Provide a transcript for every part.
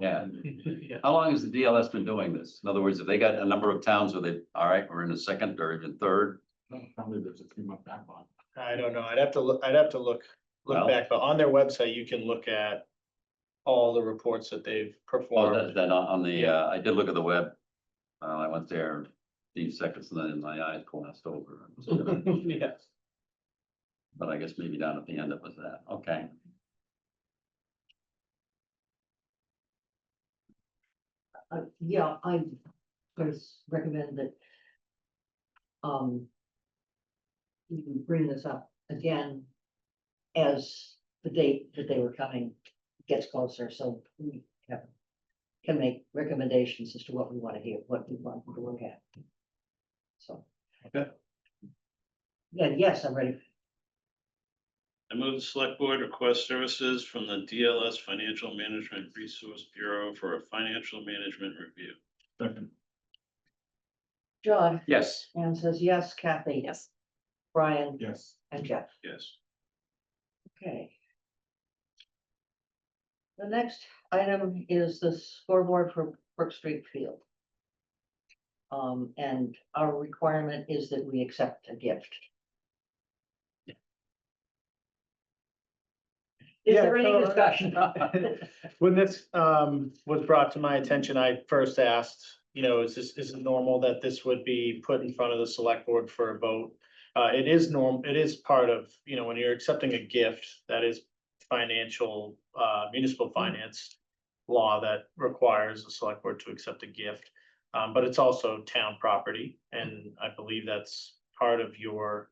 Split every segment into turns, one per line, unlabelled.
Yeah.
Yeah.
How long has the DLS been doing this? In other words, if they got a number of towns where they, all right, we're in the second or even third,
Probably there's a three month backlog.
I don't know, I'd have to look, I'd have to look,
Well-
look back, but on their website, you can look at. All the reports that they've
well,
performed.
Oh, that, that on on the, uh, I did look at the web. Uh, I went there, few seconds, and then my eyes glassed over.
Yes.
But I guess maybe down at the end it was that, okay.
Uh, yeah, I first recommend that. Um. You can bring this up again. As the date that they were coming gets closer, so we have. Can make recommendations as to what we want to hear, what we want to look at. So.
Okay.
Yeah, yes, I'm ready.
I move the select board request services from the DLS Financial Management Resource Bureau for a financial management review.
Second.
John,
Yes.
Anne says yes, Kathy.
Yes.
Brian
Yes.
and Jeff.
Yes.
Okay. The next item is the scoreboard for Brook Street Field. Um, and our requirement is that we accept a gift. Is
Yeah,
there any
so- uh,
discussion?
When this um was brought to my attention, I first asked, you know, is this, is it normal that this would be put in front of the select board for a vote? Uh, it is norm, it is part of, you know, when you're accepting a gift, that is financial, uh, municipal finance. Law that requires the select board to accept a gift, um, but it's also town property, and I believe that's part of your.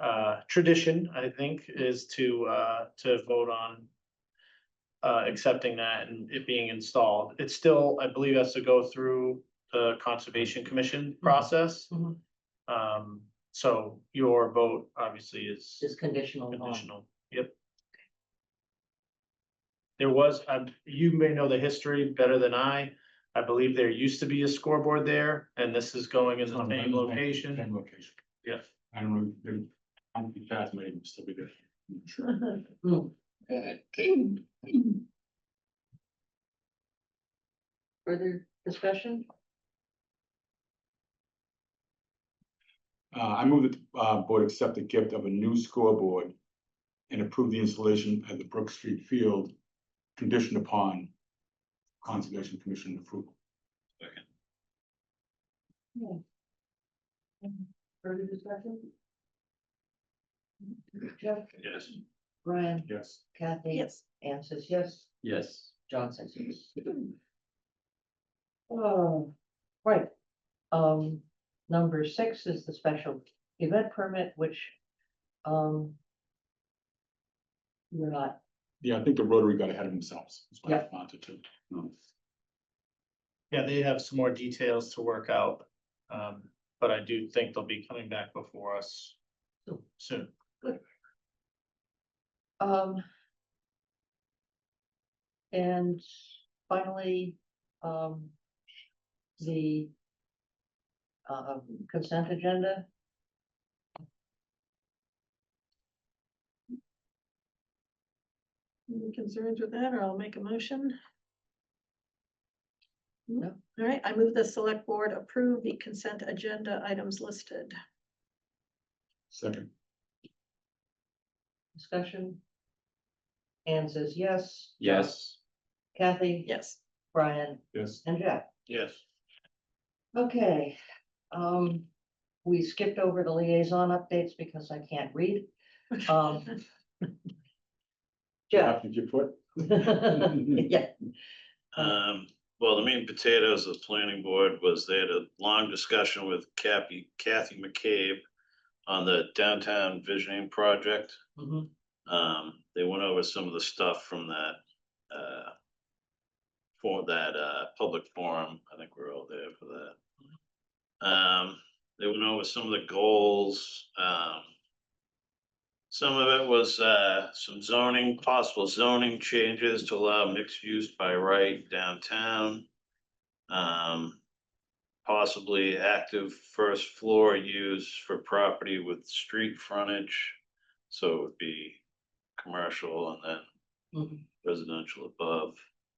Uh, tradition, I think, is to uh, to vote on uh, accepting that and it being installed. It still, I believe, has to go through the Conservation Commission process.
Mhm.
Um, so your vote obviously is
Just conditional on,
conditional, yep. There was, um, you may know the history better than I. I believe there used to be a scoreboard there and this is going in the same location.
Same location.
Yeah.
I don't know, they're, I'm fast, maybe still be there.
Hmm. further discussion?
Uh, I move that the uh, board accept the gift of a new scoreboard and approve the installation at the Brook Street Field conditioned upon Conservation Commission approval.
Further discussion? Jeff,
Yes.
Brian,
Yes.
Kathy.
Yes.
Anne says yes.
Yes.
John says yes. Oh, right. Um, number six is the special event permit, which, um. We're not,
Yeah, I think the Rotary got ahead of themselves. is what I
Yep.
wanted to-
Yeah, they have some more details to work out. Um, but I do think they'll be coming back before us
Cool.
soon.
um. And finally, um. The. Uh, consent agenda.
Any concerns with that, or I'll make a motion?
No.
All right, I move the select board approve the consent agenda items listed.
Second,
Discussion? Anne says yes.
Yes.
Kathy?
Yes.
Brian
yes.
and Jack.
Yes.
Okay, um, we skipped over the liaison updates because I can't read. Um, Jeff?
Did you put?
Yeah,
Um, well, the main potatoes of the planning board was they had a long discussion with Kathy, Kathy McCabe on the downtown visioning project.
mhm,
Um, they went over some of the stuff from that, uh, for that, uh, public forum. I think we're all there for that. Um, they went over some of the goals, um, some of it was, uh, some zoning, possible zoning changes to allow mixed use by right downtown. Um, possibly active first floor use for property with street frontage. So it would be commercial and then
mhm.
residential above.